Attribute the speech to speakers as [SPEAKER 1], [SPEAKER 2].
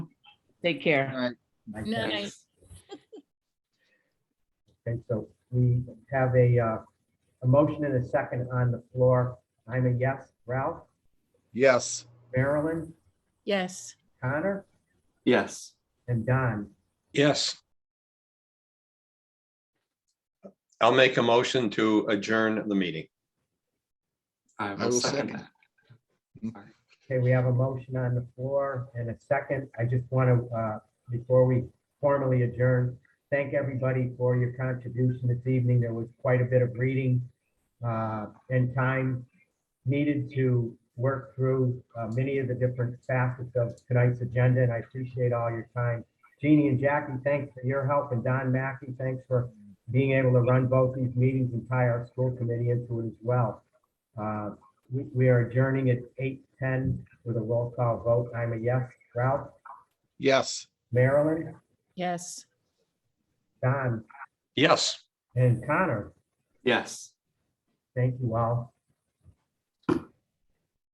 [SPEAKER 1] Take care.
[SPEAKER 2] Nice.
[SPEAKER 3] Nice.
[SPEAKER 2] Okay, so we have a, uh, a motion and a second on the floor. I'm a yes. Ralph,
[SPEAKER 4] Yes.
[SPEAKER 2] Marilyn,
[SPEAKER 3] Yes.
[SPEAKER 2] Connor,
[SPEAKER 5] Yes.
[SPEAKER 2] and Don.
[SPEAKER 6] Yes. I'll make a motion to adjourn the meeting.
[SPEAKER 5] I
[SPEAKER 4] will
[SPEAKER 5] will second
[SPEAKER 4] second.
[SPEAKER 5] that.
[SPEAKER 2] Okay, we have a motion on the floor and a second. I just want to, uh, before we formally adjourn, thank everybody for your contribution this evening. There was quite a bit of reading uh, and time needed to work through uh, many of the different facets of tonight's agenda, and I appreciate all your time. Jeannie and Jackie, thanks for your help, and Don Mackey, thanks for being able to run both these meetings and tie our school committee into it as well. Uh, we, we are adjourning at eight ten with a roll call vote. I'm a yes. Ralph,
[SPEAKER 4] Yes.
[SPEAKER 2] Marilyn,
[SPEAKER 3] Yes.
[SPEAKER 2] Don,
[SPEAKER 6] Yes.
[SPEAKER 2] and Connor.
[SPEAKER 5] Yes.
[SPEAKER 2] Thank you all.